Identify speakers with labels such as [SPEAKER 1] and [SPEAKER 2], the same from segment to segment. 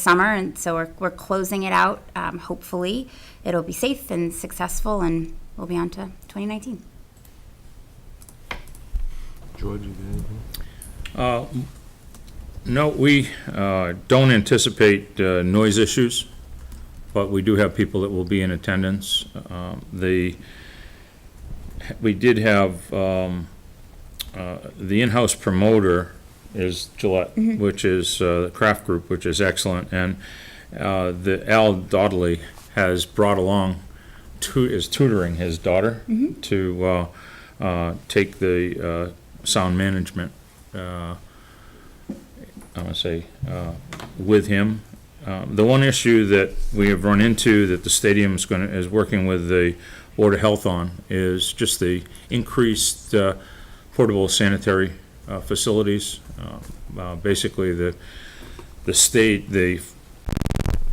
[SPEAKER 1] summer, and so we're, we're closing it out. Um, hopefully, it'll be safe and successful, and we'll be on to 2019.
[SPEAKER 2] George, you got anything?
[SPEAKER 3] Uh, m- No, we uh, don't anticipate uh, noise issues, but we do have people that will be in attendance. Um, The, we did have, um, uh, the in-house promoter is Gillette, which is uh, the Craft Group, which is excellent, and uh, the Al Dodley has brought along, tu- is tutoring his daughter to uh, uh, take the uh, sound management I want to say, uh, with him. Um, The one issue that we have run into that the stadium's going to, is working with the Board of Health on is just the increased uh, portable sanitary uh, facilities. Uh, uh, Basically, the, the state, the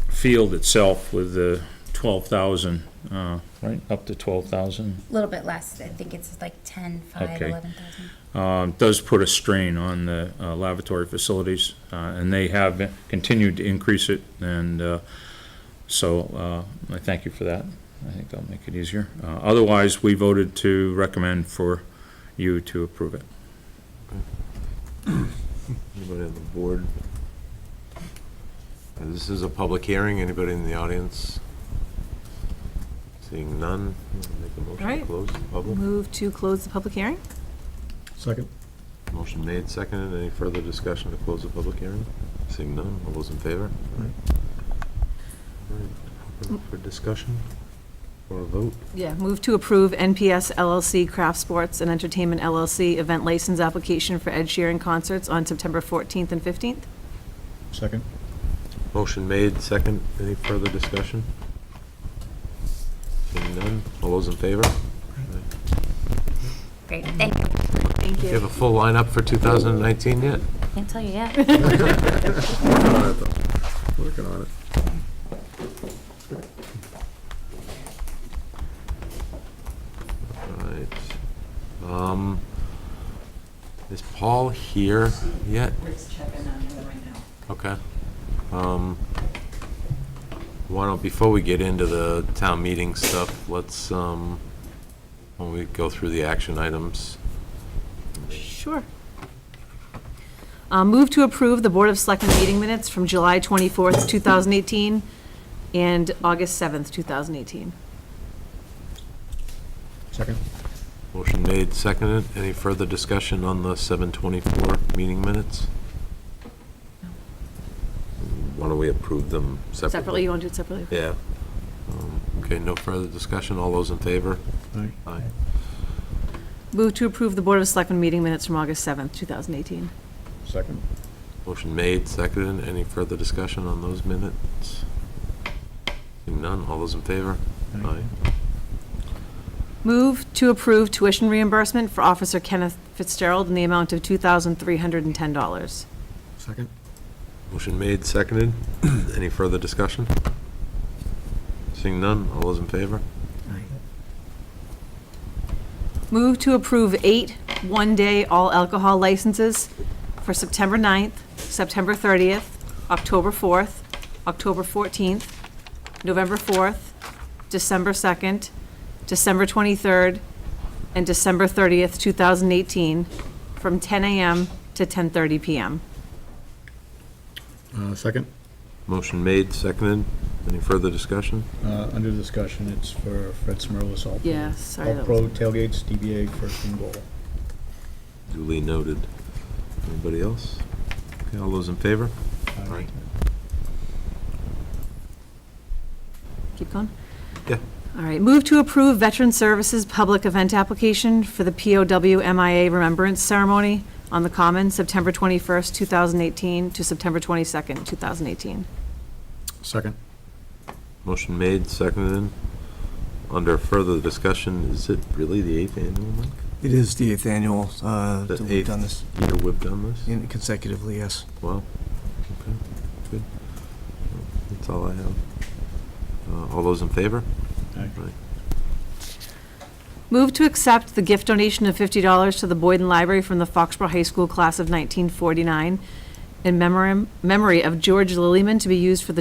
[SPEAKER 3] field itself with the 12,000, uh, right, up to
[SPEAKER 1] A
[SPEAKER 3] 12,000
[SPEAKER 1] little bit less. I think it's like 10, 5,
[SPEAKER 3] Okay.
[SPEAKER 1] 11,000.
[SPEAKER 3] um, does put a strain on the uh, lavatory facilities, uh, and they have continued to increase it, and uh, so uh, I thank you for that. I think that'll make it easier. Uh, Otherwise, we voted to recommend for you to approve it.
[SPEAKER 2] Anybody on the board? Uh, This is a public hearing. Anybody in the audience? Seeing none, I'll make a motion to
[SPEAKER 4] Right.
[SPEAKER 2] close the public.
[SPEAKER 4] Move to close the public hearing?
[SPEAKER 5] Second.
[SPEAKER 2] Motion made, seconded. Any further discussion to close the public hearing? Seeing none, all those in favor? All right. All right, open For discussion or a vote?
[SPEAKER 4] Yeah. Move to approve NPS LLC Craft Sports and Entertainment LLC event license application for Ed Sheeran concerts on September 14th and 15th?
[SPEAKER 5] Second.
[SPEAKER 2] Motion made, second. Any further discussion? Seeing none, all those in favor?
[SPEAKER 1] Great. Thank you.
[SPEAKER 4] Thank
[SPEAKER 2] Do you have a full lineup for 2019 yet?
[SPEAKER 1] Can't tell you yet.
[SPEAKER 5] Working on it.
[SPEAKER 2] Right. Um, is Paul here yet?
[SPEAKER 6] Rick's checking on him right now.
[SPEAKER 2] Okay. Um, why don't, before we get into the town meeting stuff, let's, um, when we go through the action items,
[SPEAKER 4] Sure. Uh, Move to approve the Board of Selectmen meeting minutes from July 24th, 2018, and August 7th, 2018.
[SPEAKER 5] Second.
[SPEAKER 2] motion made, seconded. Any further discussion on the 7:24 meeting minutes? Why don't we approve them separately?
[SPEAKER 4] Separately, you want to do it separately?
[SPEAKER 2] Yeah. Um, Okay, no further discussion. All those in favor?
[SPEAKER 5] Aye.
[SPEAKER 2] Aye.
[SPEAKER 4] Move to approve the Board of Selectmen meeting minutes from August 7th, 2018.
[SPEAKER 5] Second.
[SPEAKER 2] Motion made, seconded. Any further discussion on those minutes? Seeing none, all those in favor?
[SPEAKER 5] Aye.
[SPEAKER 4] Move to approve tuition reimbursement for Officer Kenneth Fitzgerald in the amount of $2,310.
[SPEAKER 5] Second.
[SPEAKER 2] Motion made, seconded. Any further discussion? Seeing none, all those in favor?
[SPEAKER 5] Aye.
[SPEAKER 4] Move to approve eight one-day all alcohol licenses for September 9th, September 30th, October 4th, October 14th, November 4th, December 2nd, December 23rd, and December 30th, 2018, from 10 a.m. to 10:30 p.m.
[SPEAKER 5] Uh, Second.
[SPEAKER 2] Motion made, seconded. Any further discussion?
[SPEAKER 5] Uh, Under discussion, it's for Fred Smirlis, all. pro-
[SPEAKER 4] Yeah, sorry,
[SPEAKER 5] All
[SPEAKER 4] that
[SPEAKER 5] pro
[SPEAKER 4] was-
[SPEAKER 5] tailgates, DBA, first and goal.
[SPEAKER 2] Duly noted. Anybody else? Okay, all those in favor? Aye.
[SPEAKER 4] Keep going.
[SPEAKER 2] Yeah.
[SPEAKER 4] All right, move to approve Veteran Services Public Event Application for the POW MIA Remembrance Ceremony on the Common, September 21st, 2018 to September 22nd, 2018.
[SPEAKER 5] Second.
[SPEAKER 2] Motion made, seconded. Under further discussion, is it really the eighth annual, Mike?
[SPEAKER 7] It is the eighth annual, uh,
[SPEAKER 2] The
[SPEAKER 7] that we've
[SPEAKER 2] eighth.
[SPEAKER 7] done this
[SPEAKER 2] Year we've done this?
[SPEAKER 7] in- consecutively, yes.
[SPEAKER 2] Wow. Okay, good. That's all I have. Uh, All those in favor?
[SPEAKER 5] Aye.
[SPEAKER 4] Move to accept the gift donation of $50 to the Boyden Library from the Foxborough High School Class of 1949 in memoram- memory of George Lillyman to be used for the